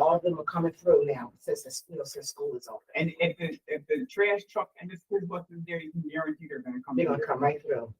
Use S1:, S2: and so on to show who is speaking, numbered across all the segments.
S1: all of them are coming through now since, it's, you know, since school is open.
S2: And if the, if the trash truck and the school bus is there, you can guarantee they're gonna come.
S1: They're gonna
S2: through.
S1: come right through.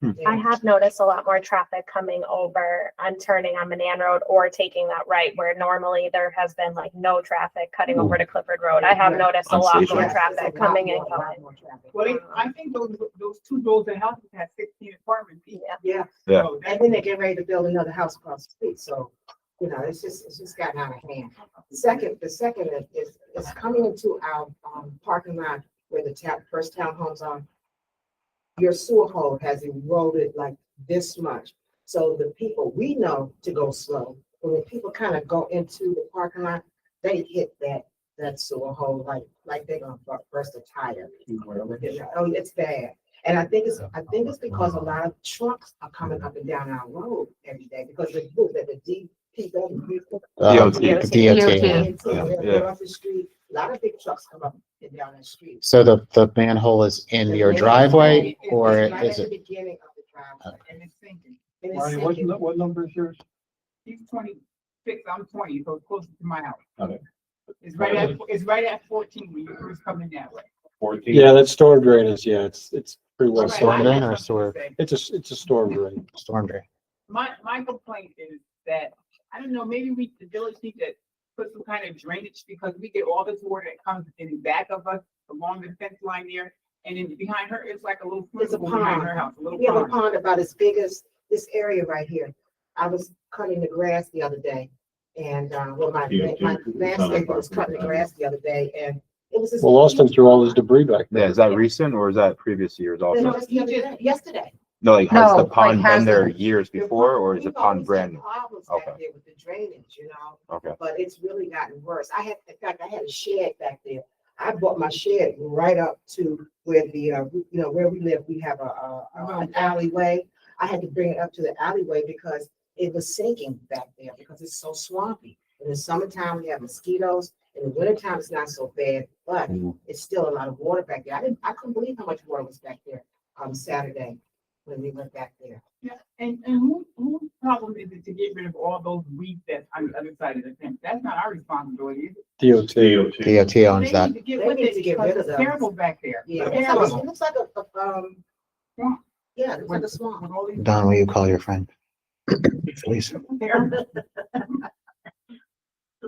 S3: Hmm.
S1: Yeah.
S4: I have noticed a lot more traffic coming over on turning on Manan Road or taking that right where normally there has been like no traffic cutting over to Clifford Road. I have
S1: Yeah.
S4: noticed a lot
S3: Unsafe.
S4: more
S1: Yes,
S4: traffic
S1: there's a lot
S4: coming
S1: more-
S4: and
S1: a lot
S4: going.
S1: more traffic.
S2: Well, they- I think those, those two buildings and houses had sixteen apartments. each.
S4: Yeah.
S1: Yeah,
S3: Yeah.
S2: So
S1: and
S2: that's-
S1: then they get ready to build another house across the street, so, you know, it's just, it's just gotten out of hand. Second, the second is- is, is coming into our, um, parking lot where the tap, first townhomes are. Your sewer hole has eroded like this much, so the people, we know to go slow. When the people kind of go into the parking lot, they hit that, that sewer hole like, like they're gonna bu- burst a tire. Oh, it's bad. And I think it's, I think it's because a lot of trucks are coming up and down our road every day because the, the DPW,
S3: DOT,
S4: DOT.
S3: DOT.
S1: and so they're- they're off the street. A lot of big trucks come up and down the street.
S3: So the, the manhole is in your driveway or
S1: It's right at
S3: is
S1: the
S3: it? Uh,
S1: beginning of the driveway.
S2: And it's sinking.
S1: And it's
S5: Ronnie, what,
S1: sinking.
S5: what number is yours?
S2: He's twenty-six, I'm twenty, so it's closer to my house.
S5: Okay.
S2: It's right at, it's right at fourteen when you're first coming that way.
S5: Fourteen. Yeah, that's storm drain is, yeah, it's, it's pretty well,
S3: Right. storm
S2: I
S5: storm-
S3: drain
S2: have
S3: or
S2: something to say.
S5: it's a, it's a storm drain.
S3: Storm drain.
S2: My, my complaint is that, I don't know, maybe we, the village needs to put some kind of drainage because we get all this water that comes in the back of us along the fence line there. And then behind her, it's like a little
S1: It's a
S2: swimming pool behind
S1: pond.
S2: her house, a little
S1: We have a
S2: pond.
S1: pond about as big as this area right here. I was cutting the grass the other day and, uh, well, my,
S6: Yeah,
S1: my
S6: dude, it's not
S1: landscaper was
S6: like-
S1: cutting the grass the other day and it was. this
S5: Well, Austin threw all his debris back.
S3: Yeah, is that recent or is that previous years
S1: No,
S3: also?
S1: just the other day- Yesterday.
S3: No, like has
S7: No,
S3: the
S7: like,
S3: pond
S7: has
S3: been there
S7: it-
S3: years before or is the
S1: We've
S3: pond
S1: always
S3: brand
S1: had
S3: new?
S1: Problems back
S3: Okay.
S1: there with the drainage, you know?
S3: Okay.
S1: but it's really gotten worse. I had, in fact, I had a shed back there. I bought my shed right up to where the, uh, you know, where we live, we have a, a, a- an alleyway. I had to bring it up to the alleyway because it was sinking back there because it's so swampy. In the summertime, we have mosquitoes. In the wintertime, it's not so bad, but
S3: Mm.
S1: it's still a lot of water back there. I didn't, I couldn't believe how much water was back there, um, Saturday when we went back there.
S2: Yeah, And, and who, whose problem is it to get rid of all those weeds that's on the other side of the fence? That's not our responsibility. is it?
S5: DOT.
S6: DOT.
S3: DOT owns
S2: They
S3: that.
S2: need to get
S1: They
S2: with
S1: need to
S2: it
S1: get
S2: because
S1: rid of
S2: it's
S1: those.
S2: terrible back there.
S1: Yeah,
S2: It's
S1: it looks like,
S2: Terrible.
S1: it looks like a, a, um,
S2: Swamp.
S1: yeah, it looks like a swamp.
S2: With all these-
S3: Don, will you call your friend? Please.
S2: Terrible.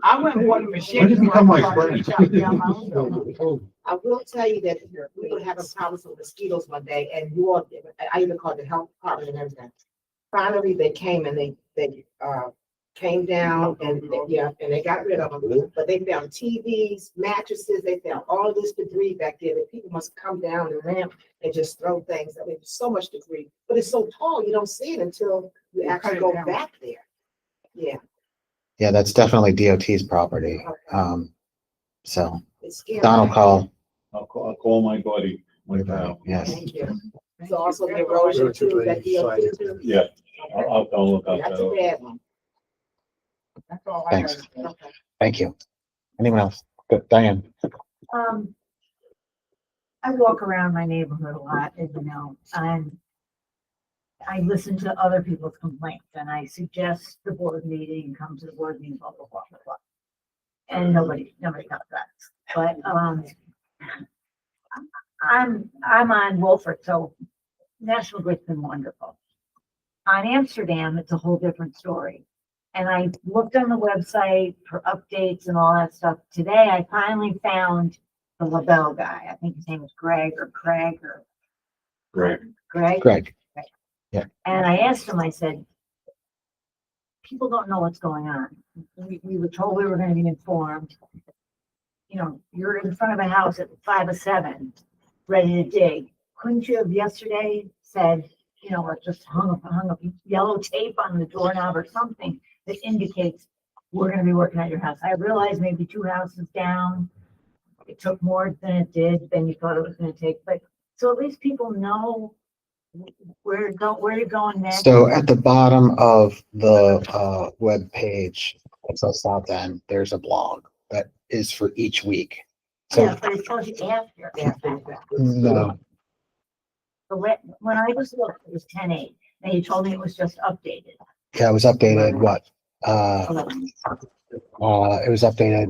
S2: I wouldn't want a machine.
S6: Why did you become my friend?
S5: Well,
S1: I will tell you that we were having problems with mosquitoes one day and you all, I even called the health department and everything. Finally, they came and they, they, uh, came down and, they- yeah, and they got rid of them. But they found TVs, mattresses, they found all this debris back there that people must come down the ramp and just throw things. I mean, so much debris, but it's so tall, you don't see it until you
S2: You cut
S1: actually
S2: it
S1: go
S2: down.
S1: back there. Yeah.
S3: Yeah, that's definitely DOT's property.
S2: Uh,
S3: Um, so
S1: It's scary.
S3: Don will call.
S6: I'll call, I'll call my buddy when, uh,
S3: Yes.
S1: Thank you. So also the erosion too, that DOT too.
S6: yeah, I'll, I'll tell him about
S1: That's a
S6: that.
S1: bad one.
S2: That's all I
S3: Thanks.
S2: heard.
S1: Okay.
S3: Thank you. Anyone else? Good. Diane?
S7: Um, I walk around my neighborhood a lot, as you know, and I listen to other people's complaints and I suggest the board meeting, come to the board meeting, blah, blah, blah, blah, blah. And nobody, nobody got that, but, um, I'm, I'm on Wolford, so National Grid's been wonderful. On Amsterdam, it's a whole different story. And I looked on the website for updates and all that stuff. Today, I finally found the LaBelle guy. I think his name is Greg or Craig or
S6: Great.
S7: Greg.
S3: Greg?
S7: And I asked him, I said, people don't know what's going on. We, we were told we were gonna be informed. You know, you're in front of a house at five or seven, ready to dig. Couldn't you have yesterday said, you know, or just hung up, hung up yellow tape on the doorknob or something that indicates we're gonna be working at your house? I realized maybe two houses down. It took more than it did, than you thought it was gonna take, but, so at least people know where, go, where you're going next.
S3: So at the bottom of the uh webpage, it's a stop then, there's a blog that is for each week. So
S7: Yeah, but it tells you after.
S1: Yeah, thank you.
S3: no,
S7: The la- when I was looked, it was ten eight. Now you told me it was just updated.
S3: yeah, it was updated, what,
S1: Oh,
S3: Uh, uh, it was updated